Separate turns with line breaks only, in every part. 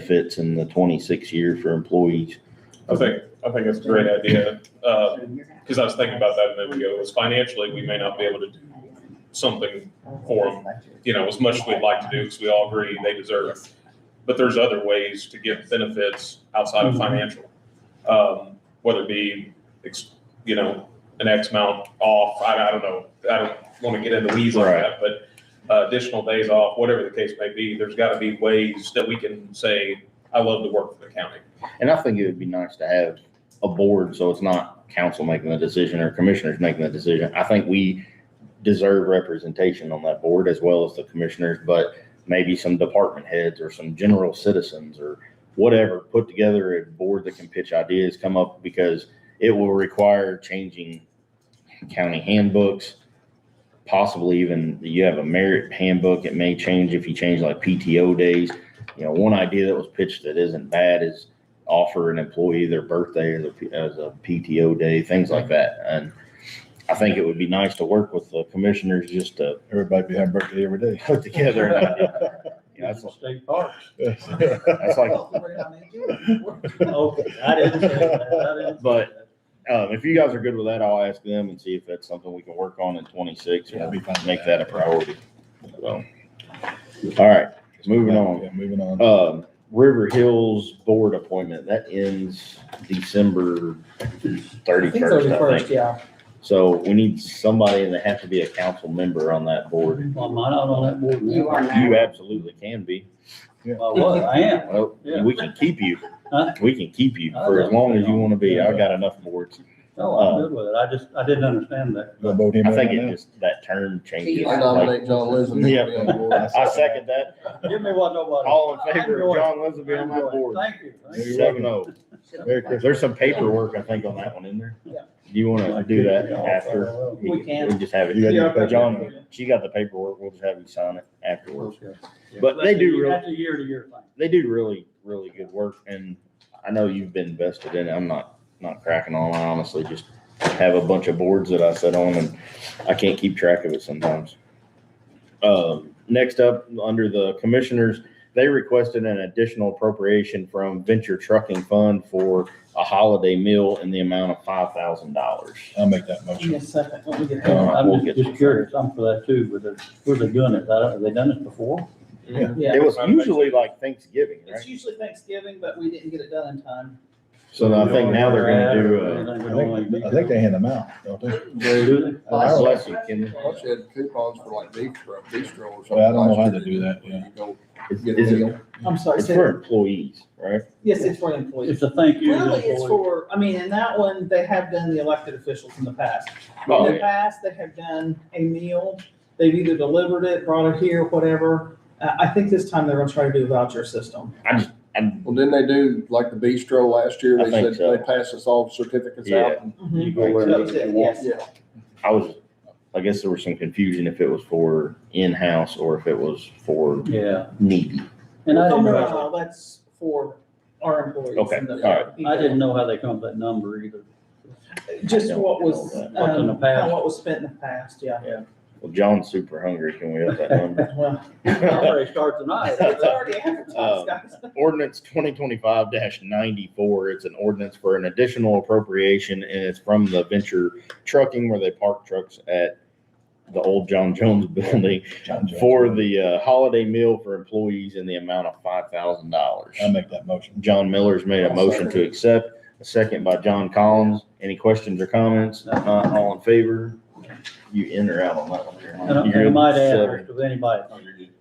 benefits in the twenty-six year for employees.
I think, I think that's a great idea, uh, because I was thinking about that a minute ago, is financially, we may not be able to do something for them, you know, as much as we'd like to do, because we all agree they deserve it. But there's other ways to give benefits outside of financial, um, whether it be, ex- you know, an X amount off, I, I don't know, I don't want to get into weeds like that, but uh, additional days off, whatever the case may be, there's got to be ways that we can say, I love to work for the county.
And I think it would be nice to have a board, so it's not council making the decision or commissioners making the decision. I think we deserve representation on that board as well as the commissioners, but maybe some department heads or some general citizens or whatever, put together a board that can pitch ideas, come up, because it will require changing county handbooks, possibly even, you have a merit handbook, it may change if you change like PTO days. You know, one idea that was pitched that isn't bad is offer an employee their birthday as a, P- as a PTO day, things like that. And I think it would be nice to work with the commissioners just to
Everybody be having birthday every day.
put together an idea. You know, That's,
State parks.
that's like,
Okay, I didn't say that, I didn't. say
But-
that.
um, if you guys are good with that, I'll ask them and see if that's something we can work on in twenty-six
Yeah, I'd
and
be fine with
make that a priority. So, all right, moving on.
Yeah, Moving on.
um, River Hills Board appointment, that ends December thirty-first, I think.
yeah.
So we need somebody and they have to be a council member on that board.
Well, am I not on that board now?
You are
You
now.
absolutely can be.
Well, I was, I am.
Well,
Yeah.
we can keep you.
Huh?
We can keep you for as long as you want to be. I've got enough boards.
No, I'm good with it. I just, I didn't understand that.
Gonna vote him
I
in
think
right
it
now?
just, that term changes.
I
Like,
John Lisbon.
Yeah. I second that.
Give me what nobody.
All in favor of John Lindsay being on
I'm
that
good.
board?
Thank you. Thank you.
Seven oh.
Merry Christmas.
There's some paperwork, I think, on that one in there. Do
Yeah.
you want to do that after?
We can.
We just have it.
You got
But
it.
John, she got the paperwork. We'll just have you sign it afterwards.
Okay.
But they do really.
That's a year to year thing.
they do really, really good work, and I know you've been invested in it. I'm not, not cracking on. I honestly just have a bunch of boards that I sit on, and I can't keep track of it sometimes. Um, next up, under the commissioners, they requested an additional appropriation from Venture Trucking Fund for a holiday meal in the amount of five thousand dollars.
I'll make that motion.
Yes, second. Let me get that.
Uh, we'll
I'm
get-
just, just curious. I'm for that too, but they're, where they doing it? I don't- Have they done it before?
Yeah.
It was usually like Thanksgiving,
It's
right?
usually Thanksgiving, but we didn't get it done in time.
So I think now they're gonna do uh, a.
I think, I think they hand them out, don't they?
Do
I don't know.
Bless you, Kenley.
Plus, you had coupons for like bistro, bistro or something.
Well, I don't know how
last
to
year.
do that, yeah.
You go
Is-
get a
is it-
deal.
I'm sorry.
It's
say-
for employees, right?
Yes, it's for
they?
employees.
It's a thank you. to
Really, it's
employees.
for, I mean, in that one, they have done the elected officials in the past.
Oh,
In
yeah.
the past, they have done a meal. They've either delivered it, brought it here, whatever. Uh, I think this time they're gonna try to do a voucher system.
I'm-
Well, didn't they do like the bistro last year?
I
They
think
said
so.
they passed us all certificates
Yeah.
out. and-
Mm-hmm.
You go where
That's
you
it,
want.
yes.
Yeah,
I was, I guess there was some confusion if it was for in-house or if it was for
Yeah.
needy.
And I
No,
didn't
no,
know.
no, that's for our employees.
Okay,
and the-
all right.
I didn't know how they come up with that number either.
Just what was,
What's in
the
um,
past.
what was spent in the past, yeah.
Well, John's super hungry. Can we up that number?
Well,
I already start tonight.
It's already advertised, guys.
Ordinance twenty twenty-five ninety-four. It's an ordinance for an additional appropriation and it's from the venture trucking where they park trucks at the old John Jones building
John Jones.
for the uh, holiday meal for employees in the amount of five thousand dollars.
I'll make that motion.
John Miller's made a motion to accept, a second by John Collins. Any questions or comments? If Not all in favor? You in or out on that one?
And I-
Jeremiah?
and I might
Seven.
add, to anybody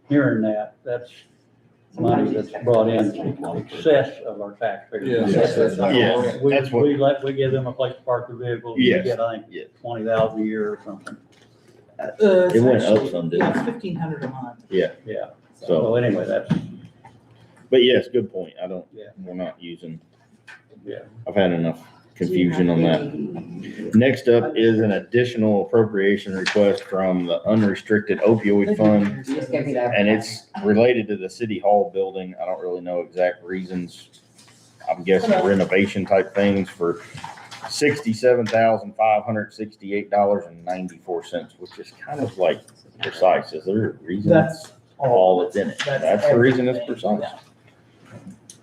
hearing that, that's money that's brought in in excess of our
yeah.
taxpayers.
that's- that's not
Yeah.
wrong.
We,
That's what-
we let, we give them a place to park the vehicle. We
Yes.
get, I
Yes.
think, twenty thousand a year or something,
Uh,
It went up
actually-
some, didn't
Yeah,
it?
fifteen hundred a month.
yeah.
So,
So anyway, that's,
but yes, good point. I don't,
Yeah.
we're not using,
yeah.
I've had enough confusion on that. Next up is an additional appropriation request from the unrestricted opioid fund. And it's related to the city hall building. I don't really know exact reasons. I'm guessing renovation type things for sixty-seven thousand five hundred sixty-eight dollars and ninety-four cents, which is kind of like precise. Is there a reason?
That's all.
All that's in it.
That's
That's the reason it's
everything.
precise.